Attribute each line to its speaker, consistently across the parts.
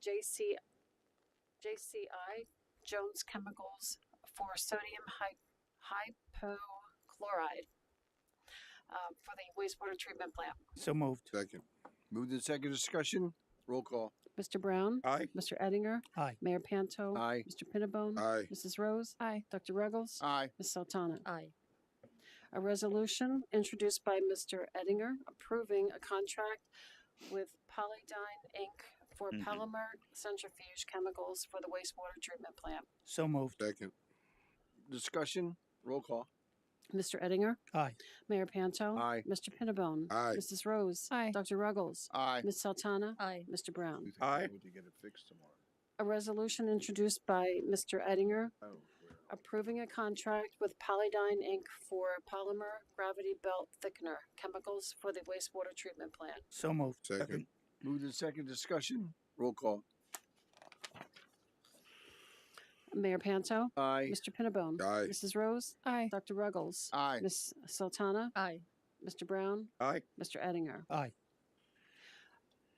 Speaker 1: JC, JCI, Jones Chemicals, for sodium hy- hypochloride um, for the wastewater treatment plant.
Speaker 2: So moved.
Speaker 3: Second. Moved in second discussion. Roll call.
Speaker 1: Mr. Brown?
Speaker 3: Aye.
Speaker 1: Mr. Ettinger?
Speaker 2: Aye.
Speaker 1: Mayor Panto?
Speaker 3: Aye.
Speaker 1: Mr. Pinnabone?
Speaker 3: Aye.
Speaker 1: Mrs. Rose? Aye. Dr. Ruggles?
Speaker 3: Aye.
Speaker 1: Ms. Sultana?
Speaker 4: Aye.
Speaker 1: A resolution introduced by Mr. Ettinger approving a contract with Polydine Inc. for
Speaker 3: Mm-hmm.
Speaker 1: polymer centrifuge chemicals for the wastewater treatment plant.
Speaker 2: So moved.
Speaker 3: Second. Discussion. Roll call.
Speaker 1: Mr. Ettinger?
Speaker 2: Aye.
Speaker 1: Mayor Panto?
Speaker 3: Aye.
Speaker 1: Mr. Pinnabone?
Speaker 3: Aye.
Speaker 1: Mrs. Rose? Aye. Dr. Ruggles?
Speaker 3: Aye.
Speaker 1: Ms. Sultana?
Speaker 4: Aye.
Speaker 1: Mr. Brown?
Speaker 3: Aye. We need to get it fixed tomorrow.
Speaker 1: A resolution introduced by Mr. Ettinger
Speaker 3: Oh,
Speaker 1: approving a contract with Polydine Inc. for polymer gravity belt thickener chemicals for the wastewater treatment plant.
Speaker 2: So moved.
Speaker 3: Second. Moved in second discussion. Roll call.
Speaker 1: Mayor Panto?
Speaker 3: Aye.
Speaker 1: Mr. Pinnabone.
Speaker 3: Aye.
Speaker 1: Mrs. Rose. Aye. Dr. Ruggles.
Speaker 3: Aye.
Speaker 1: Miss Sultana.
Speaker 4: Aye.
Speaker 1: Mr. Brown.
Speaker 3: Aye.
Speaker 1: Mr. Ettinger.
Speaker 2: Aye.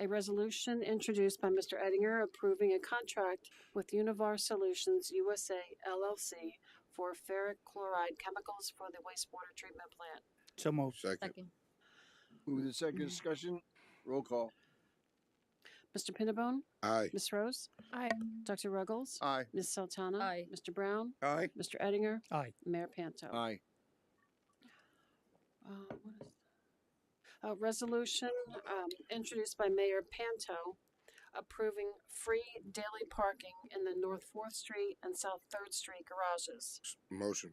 Speaker 1: A resolution introduced by Mr. Ettinger approving a contract with Univar Solutions USA LLC for ferric chloride chemicals for the wastewater treatment plant.
Speaker 2: So moved.
Speaker 3: Second.
Speaker 4: Second.
Speaker 3: Moved in second discussion. Roll call.
Speaker 1: Mr. Pinnabone.
Speaker 3: Aye.
Speaker 1: Miss Rose.
Speaker 4: Aye.
Speaker 1: Dr. Ruggles.
Speaker 3: Aye.
Speaker 1: Miss Sultana.
Speaker 4: Aye.
Speaker 1: Mr. Brown.
Speaker 3: Aye.
Speaker 1: Mr. Ettinger.
Speaker 2: Aye.
Speaker 1: Mayor Panto.
Speaker 3: Aye.
Speaker 1: Uh, what is that? A resolution um, introduced by Mayor Panto approving free daily parking in the North Fourth Street and South Third Street garages.
Speaker 3: Motion.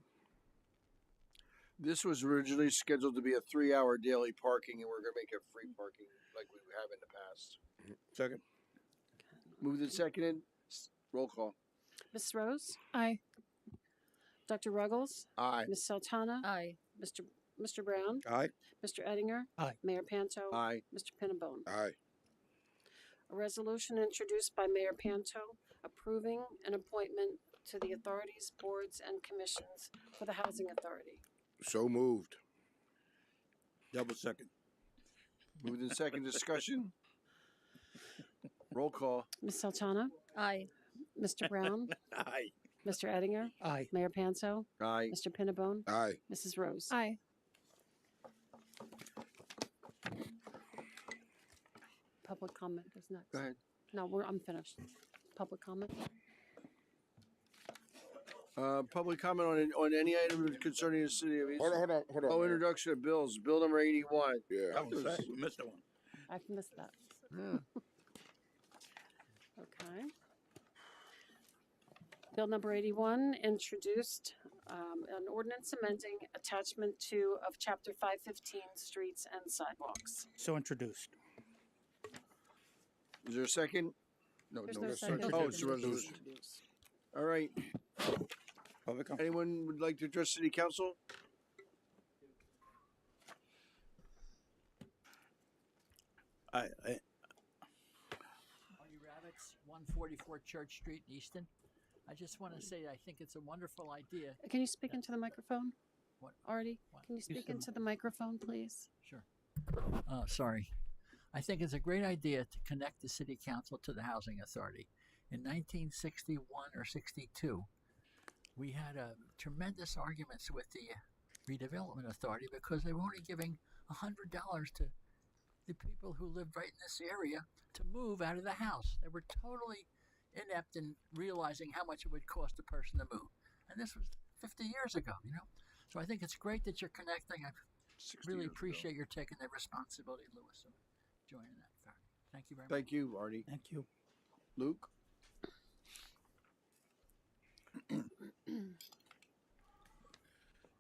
Speaker 3: This was originally scheduled to be a three-hour daily parking, and we're gonna make it free parking like we have in the past. Second. Moved and seconded. S- Roll call.
Speaker 1: Ms. Rose? Aye. Dr. Ruggles?
Speaker 3: Aye.
Speaker 1: Ms. Sultana?
Speaker 4: Aye.
Speaker 1: Mr. Mr. Brown?
Speaker 3: Aye.
Speaker 1: Mr. Ettinger?
Speaker 2: Aye.
Speaker 1: Mayor Panto?
Speaker 3: Aye.
Speaker 1: Mr. Pinnabone?
Speaker 3: Aye.
Speaker 1: A resolution introduced by Mayor Panto approving an appointment to the authorities, boards, and commissions for the Housing Authority.
Speaker 3: So moved.
Speaker 2: Double second.
Speaker 3: Moved in second discussion. Roll call.
Speaker 1: Ms. Sultana?
Speaker 4: Aye.
Speaker 1: Mr. Brown?
Speaker 2: Aye.
Speaker 1: Mr. Ettinger?
Speaker 2: Aye.
Speaker 1: Mayor Panto?
Speaker 3: Aye.
Speaker 1: Mr. Pinnabone?
Speaker 3: Aye.
Speaker 1: Mrs. Rose?
Speaker 4: Aye.
Speaker 1: Public comment is next.
Speaker 3: Go ahead.
Speaker 1: No, we're, I'm finished. Public comment?
Speaker 3: Uh, public comment on, on any item concerning the city of East.
Speaker 5: Hold on, hold on, hold on.
Speaker 3: Oh,
Speaker 5: Mayor.
Speaker 3: introduction of bills, bill number eighty-one.
Speaker 5: Yeah.
Speaker 2: We missed that one.
Speaker 1: I've missed that.
Speaker 5: Hmm.
Speaker 1: Okay. Bill number eighty-one introduced, um, an ordinance amending attachment two of chapter five fifteen, streets and sidewalks.
Speaker 2: So introduced.
Speaker 3: Is there a second? No,
Speaker 1: There's
Speaker 3: no.
Speaker 1: no
Speaker 3: that's-
Speaker 1: second.
Speaker 3: Oh, it's a resolution. All right.
Speaker 2: Public comment.
Speaker 3: Anyone would like to address city council?
Speaker 2: I, I,
Speaker 6: Marty Radix, 144 Church Street in Easton. I just want to say I think it's a wonderful idea.
Speaker 1: Can you speak into the microphone?
Speaker 6: What?
Speaker 1: Artie,
Speaker 6: What?
Speaker 1: can you speak into the microphone, please?
Speaker 6: Sure. Uh, sorry. I think it's a great idea to connect the city council to the housing authority. In 1961 or 62, we had a tremendous arguments with the redevelopment authority because they were only giving $100 to the people who lived right in this area to move out of the house. They were totally inept in realizing how much it would cost a person to move. And this was 50 years ago, you know? So I think it's great that you're connecting. I really appreciate your taking that responsibility, Louis, and joining that. Fair. Thank you very much.
Speaker 3: Thank you, Arnie.
Speaker 2: thank you.
Speaker 3: Luke?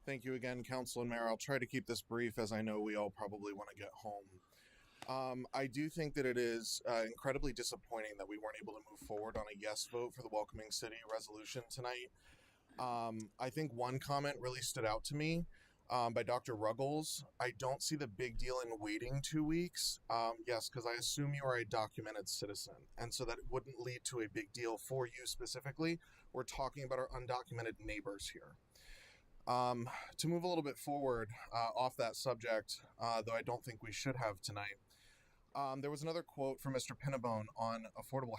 Speaker 5: Thank you again, Council and Mayor. I'll try to keep this brief as I know we all probably want to get home. Um, I do think that it is uh, incredibly disappointing that we weren't able to move forward on a yes vote for the Welcoming City resolution tonight. Um, I think one comment really stood out to me um, by Dr. Ruggles. I don't see the big deal in waiting two weeks. Um, yes, because I assume you are a documented citizen. And so that wouldn't lead to a big deal for you specifically. We're talking about our undocumented neighbors here. Um, to move a little bit forward uh, off that subject, uh, though I don't think we should have tonight, um, there was another quote from Mr. Pinnabone on affordable